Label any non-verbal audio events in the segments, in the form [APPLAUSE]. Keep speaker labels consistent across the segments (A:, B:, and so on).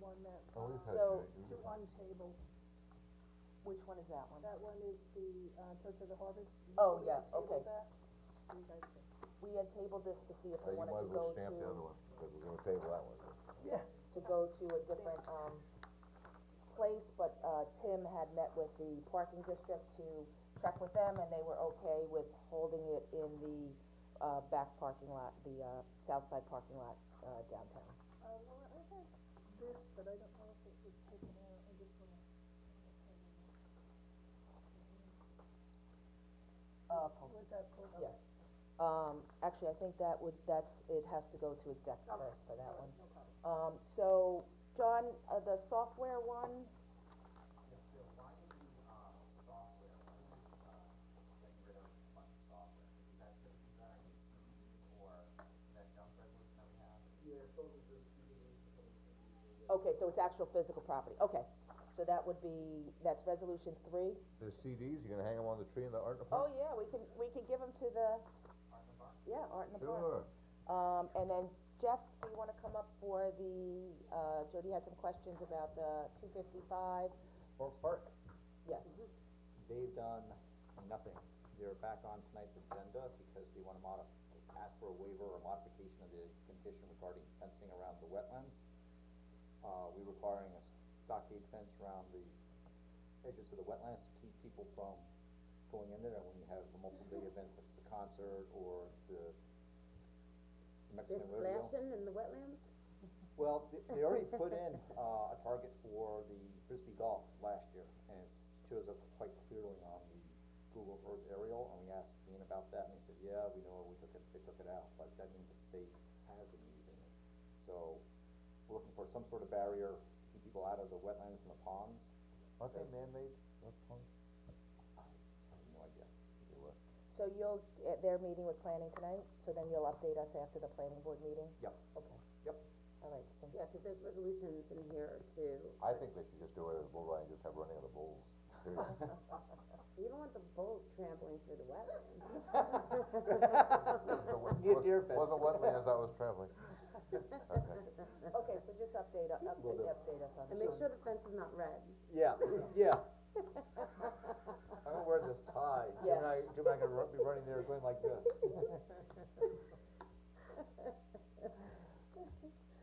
A: one that,
B: Oh, we've had
C: So-
B: that,
A: to
B: we've-
A: one table,
C: Which one is that one?
A: that one is the, uh, Church of the Harvest. You
C: Oh,
A: know, we
C: yeah,
A: had tabled
C: okay.
A: that. You guys can-
C: We had tabled this to see if
B: Uh,
C: we
B: You
C: wanted
B: might
C: to
B: as well
C: go to,
B: stamp the other one, because we're gonna table that one.
C: to go to a different, um, place, but, uh, Tim had met with the parking district to check with them, and they were okay with holding it in the, uh, back parking lot, the, uh, south side parking lot, uh, downtown.
A: Uh, Laura, I had this, but I don't know if it was taken out, I just wanna.
C: Uh, po-
A: Was that pulled up?
C: Yeah. Um, actually, I think that would, that's, it has to go to exec first for that one. Um, so, John, uh, the software one, okay, so it's actual physical property, okay. So that would be, that's resolution three?
B: The CDs, you're gonna hang them on the tree in the art
C: Oh,
B: department?
C: yeah, we can, we can give them to the. Yeah, Art in the Park.
B: Sure,
C: Um, and then Jeff, do you wanna come up for the, uh, Jody had some questions about the two fifty-five,
D: Fork Park,
C: yes,
E: Mm-hmm.
D: they've done nothing. They're back on tonight's agenda because they wanna modif- ask for a waiver or modification of the condition regarding fencing around the wetlands. Uh, we requiring a stockade fence around the edges of the wetlands to keep people from going in there when you have multiple big events, such as a concert or the
E: They're
D: Mexican rodeo.
E: splashing in the wetlands?
D: Well, th- they already put in, uh, a target for the frisbee golf last year, and it shows up quite clearly on the Google Earth aerial, and we asked Dean about that, and he said, yeah, we know, we took it, they took it out, but that means that they have been using it. So, we're looking for some sort of barrier, keep people out of the wetlands and the ponds,
B: aren't they man-made, those ponds?
D: I have no
B: [LAUGHS]
D: idea.
B: They were.
C: so you'll, eh, they're meeting with planning tonight, so then you'll update us after the planning board meeting?
D: Yep,
C: Okay,
D: yep,
C: alright, so,
E: Yeah, cause there's resolutions in here too.
B: I think they should just do it as a bull riding, just have running of the
C: [LAUGHS]
B: bulls. Seriously.
E: You don't want the bulls trampling through the wetlands. [LAUGHS]
B: Wasn't the wet-
D: Near
B: was-
D: deer fence.
B: Wasn't wetland as I was
C: [LAUGHS]
B: traveling. Okay.
C: okay, so just update, u- update, update us on
E: And
C: that.
E: make sure the fence is not red.
D: yeah, yeah. I'm gonna wear this tie.
B: Jim and I, Jim and I could run, be running there going like this.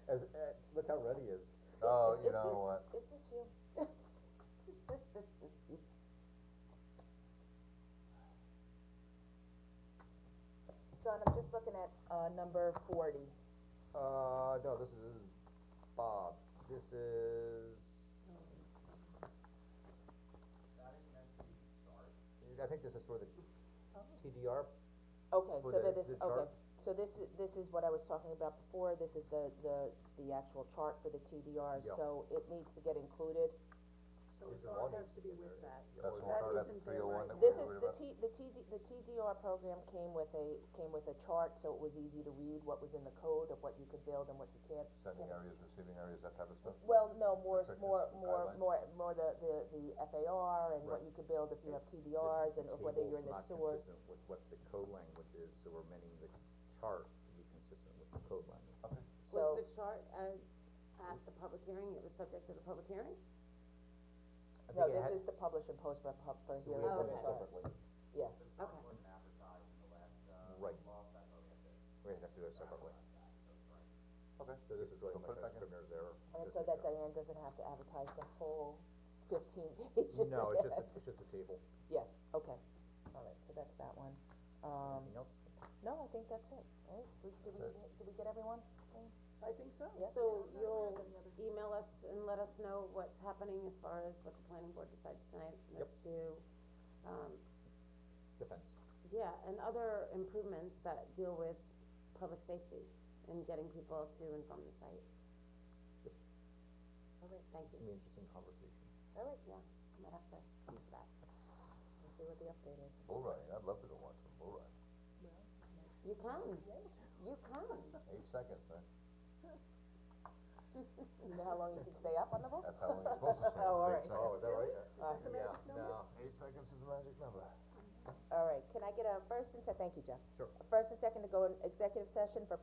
D: As, eh, look how red he is.
B: Oh,
C: Is
B: you
C: thi- is
B: know
C: this-
B: what,
C: Is this you? [LAUGHS] John, I'm just looking at, uh, number forty,
B: uh, no, this is Bob, this is. I think this is for the TDR
C: okay,
B: For
C: so
B: the-
C: that this,
B: the
C: okay,
B: chart?
C: so this, i- this is what I was talking about before, this is the, the, the actual chart for the TDR,
B: Yeah.
C: so it needs to get included.
A: So
B: Is
A: it's
B: the
A: all
B: one-
A: has to be with that.
B: That's the
A: That
B: one, sorry, that
A: isn't there
B: three oh one
A: right
B: that we
C: This
B: were
C: is,
B: worried
C: the
B: about.
C: T, the TD, the TDR program came with a, came with a chart, so it was easy to read what was in the code of what you could build and what you can't.
B: Sending
C: can't-
B: areas, receiving areas, that type of stuff.
C: Well, no, more,
B: Restrictions,
C: more, more,
B: guidelines.
C: more, more the, the, the FAR and
B: Right.
C: what you could build if you have TDRs and whether you're in the sewer.
D: Table's not consistent with what the code language is, so we're amending the chart to be consistent with the code language. Okay.
C: So-
E: Was the chart, uh, at the public hearing, it was subject to the public hearing?
C: No, this is to publish and post for pub, for hearing
E: have
C: for
E: done
C: the
B: Oh,
E: it
C: chart. Yeah,
E: Okay.
D: Right. We have to do it separately. Okay. So this is really
B: We'll put it
D: much a
B: back in.
D: scrivener's error.
C: and
D: Just
C: so
D: make
C: that
D: sure.
C: Diane doesn't have to advertise the whole fifteen [LAUGHS] pages.
D: No, it's
C: [LAUGHS]
D: just, a- it's just a table.
C: Yeah, okay, alright, so that's that one. Um,
D: Anything else?
C: no, I think that's it, right? We, did we, did we get everyone?
A: I think so.
C: Yeah.
E: So you'll email us and let us know what's happening as far as what the planning board decides tonight as to, um,
D: Defense.
E: yeah, and other improvements that deal with public safety and getting people to and from the site. Alright, thank
D: It's gonna be an
E: you.
D: interesting conversation.
C: Alright,
E: Yeah, I might have to come to that.
C: let's see what the update is.
B: Bull riding, I'd love to go watch some bull riding.
E: You can, you can.
B: Eight seconds, man.
C: You know how long you can stay up on the
D: [LAUGHS]
C: vote?
B: That's how long it's supposed to stay.
C: Oh,
B: Eight
C: alright.
B: seconds.
D: that right?
C: Alright.
B: Yeah, no, eight seconds is the magic number.
C: Alright, can I get a first and se- thank you, Jeff.
D: Sure.
C: A first and second to go in executive session for